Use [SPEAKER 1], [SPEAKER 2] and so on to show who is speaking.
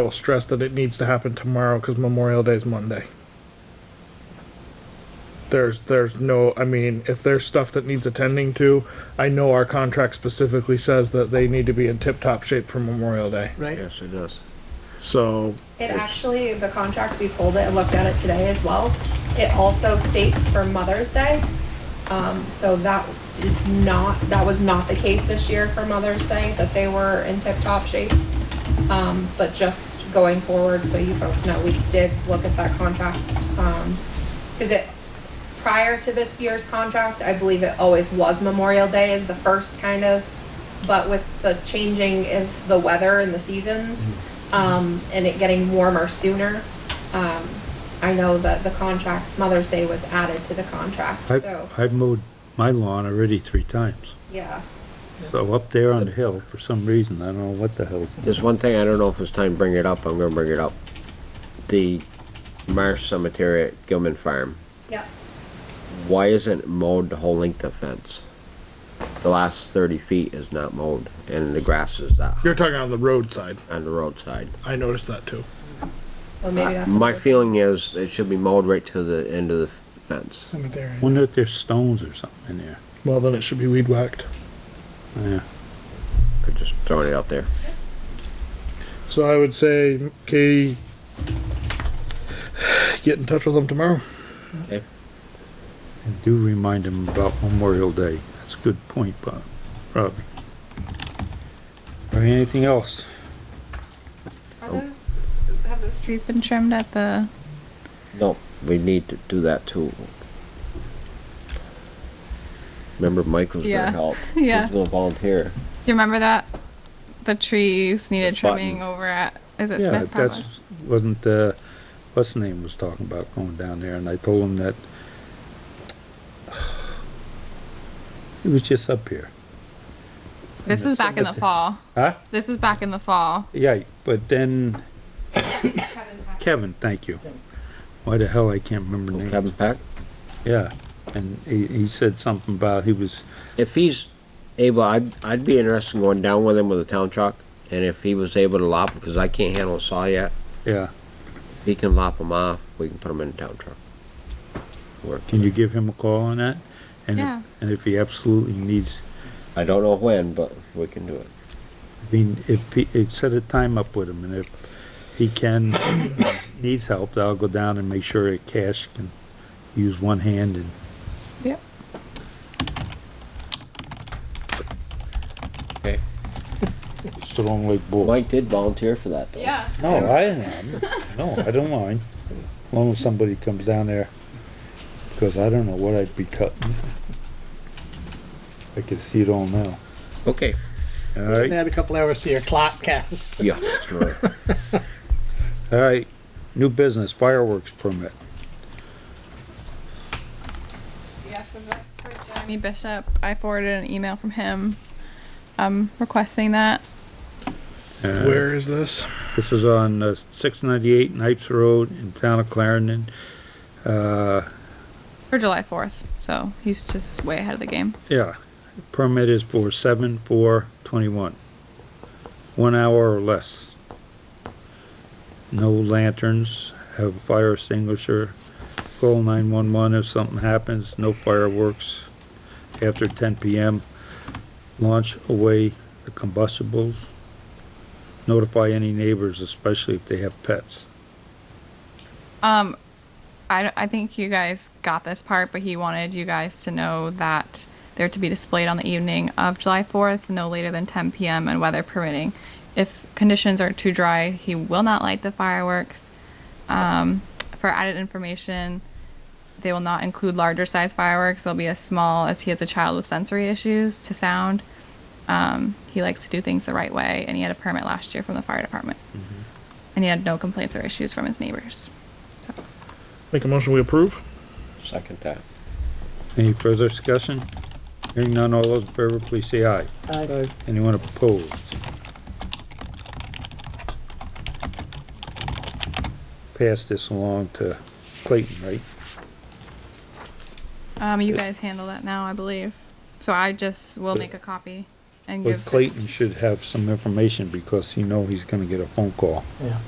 [SPEAKER 1] I will stress that it needs to happen tomorrow because Memorial Day is Monday. There's, there's no, I mean, if there's stuff that needs attending to, I know our contract specifically says that they need to be in tip-top shape for Memorial Day.
[SPEAKER 2] right?
[SPEAKER 3] Yes, it does.
[SPEAKER 1] So,
[SPEAKER 4] It actually, the contract, we pulled it and looked at it today as well. It also states for Mother's Day. Um, so that did not, that was not the case this year for Mother's Day, that they were in tip-top shape. Um, but just going forward, so you folks know, we did look at that contract. Um, is it, prior to this year's contract, I believe it always was Memorial Day is the first kind of, but with the changing of the weather and the seasons, um, and it getting warmer sooner, um, I know that the contract, Mother's Day was added to the contract,
[SPEAKER 5] I've,
[SPEAKER 4] so,
[SPEAKER 5] I've mowed my lawn already three times.
[SPEAKER 4] yeah.
[SPEAKER 5] So up there on the hill, for some reason, I don't know what the hell's.
[SPEAKER 3] There's one thing I don't know if it's time to bring it up, I'm gonna bring it up. The Marsh Cemetery at Gilman Farm,
[SPEAKER 4] Yep,
[SPEAKER 3] why isn't it mowed the whole length of fence? The last thirty feet is not mowed and the grass is that high
[SPEAKER 1] you're talking on the roadside.
[SPEAKER 3] on the roadside.
[SPEAKER 1] I noticed that too.
[SPEAKER 4] well, maybe that's.
[SPEAKER 3] My feeling is it should be mowed right to the end of the fence.
[SPEAKER 1] Cemetery.
[SPEAKER 5] Wonder if there's stones or something in there.
[SPEAKER 1] Well, then it should be weed whacked.
[SPEAKER 5] Yeah.
[SPEAKER 3] I'm just throwing it out there.
[SPEAKER 1] So I would say, Katie, get in touch with them tomorrow.
[SPEAKER 5] And do remind them about Memorial Day. That's a good point, Bob, Robbie. All right, anything else?
[SPEAKER 6] Are those, have those trees been trimmed at the,
[SPEAKER 3] No, we need to do that too. Remember Mike was
[SPEAKER 6] Yeah.
[SPEAKER 3] gonna help.
[SPEAKER 6] Yeah.
[SPEAKER 3] He was gonna volunteer.
[SPEAKER 6] do you remember that? The trees needed
[SPEAKER 3] The button.
[SPEAKER 6] trimming over at, is it
[SPEAKER 5] Yeah,
[SPEAKER 6] Smith Pablo?
[SPEAKER 5] that's, wasn't, uh, what's the name was talking about going down there and I told him that it was just up here.
[SPEAKER 6] This was back in the
[SPEAKER 5] cemetery.
[SPEAKER 6] fall.
[SPEAKER 5] Huh?
[SPEAKER 6] This was back in the fall.
[SPEAKER 5] Yeah, but then
[SPEAKER 4] Kevin Pack-
[SPEAKER 5] Kevin, thank you. Why the hell I can't remember
[SPEAKER 3] Little
[SPEAKER 5] names.
[SPEAKER 3] Cabin pack.
[SPEAKER 5] Yeah, and he, he said something about he was,
[SPEAKER 3] If he's able, I'd, I'd be interested in going down with him with a town truck. And if he was able to lop, because I can't handle a saw yet,
[SPEAKER 5] yeah,
[SPEAKER 3] if he can lop them off, we can put them in a town truck. Work.
[SPEAKER 5] can you give him a call on that? And if-
[SPEAKER 6] Yeah.
[SPEAKER 5] And if he absolutely needs,
[SPEAKER 3] I don't know when, but we can do it.
[SPEAKER 5] I mean, if he, it set a time up with him and if he can, needs help, I'll go down and make sure that Cash can use one hand and
[SPEAKER 6] Yep.
[SPEAKER 3] Okay.
[SPEAKER 5] it's the long like bull.
[SPEAKER 3] Mike did volunteer for that though.
[SPEAKER 6] Yeah.
[SPEAKER 5] No, I am, no, I don't mind, as long as somebody comes down there, because I don't know what I'd be cutting. I can see it all now.
[SPEAKER 3] Okay.
[SPEAKER 5] All
[SPEAKER 2] Right.
[SPEAKER 5] right,
[SPEAKER 2] Add a couple hours to your clock, Cass.
[SPEAKER 3] Yeah. that's right.
[SPEAKER 5] all right, new business fireworks permit.
[SPEAKER 6] Yeah, so that's for Jeremy Bishop. I forwarded an email from him, um, requesting that.
[SPEAKER 5] Uh,
[SPEAKER 1] Where is this?
[SPEAKER 5] This is on uh, 698 Knights Road in town of Clarendon. Uh,
[SPEAKER 6] For July 4th, so he's just way ahead of the game.
[SPEAKER 5] yeah, permit is for 7/4/21. One hour or less. No lanterns, have a fire extinguisher, call 911 if something happens, no fireworks after 10 PM. Launch away the combustibles. Notify any neighbors, especially if they have pets.
[SPEAKER 6] Um, I, don't- I think you guys got this part, but he wanted you guys to know that they're to be displayed on the evening of July 4th, no later than 10 p.m. and weather permitting. If conditions are too dry, he will not light the fireworks. Um, for added information, they will not include larger size fireworks. They'll be as small as he has a child with sensory issues to sound. Um, he likes to do things the right way, and he had a permit last year from the fire department. And he had no complaints or issues from his neighbors. So.
[SPEAKER 1] Make a motion, we approve?
[SPEAKER 3] Second time.
[SPEAKER 5] Any further discussion? Hearing none, all those in favor, please say aye.
[SPEAKER 2] Aye.
[SPEAKER 5] Anyone opposed? Pass this along to Clayton, right?
[SPEAKER 6] Um, you guys handle that now, I believe. So I just will make a copy and give.
[SPEAKER 5] But Clayton should have some information because he know he's gonna get a phone call.
[SPEAKER 2] yeah.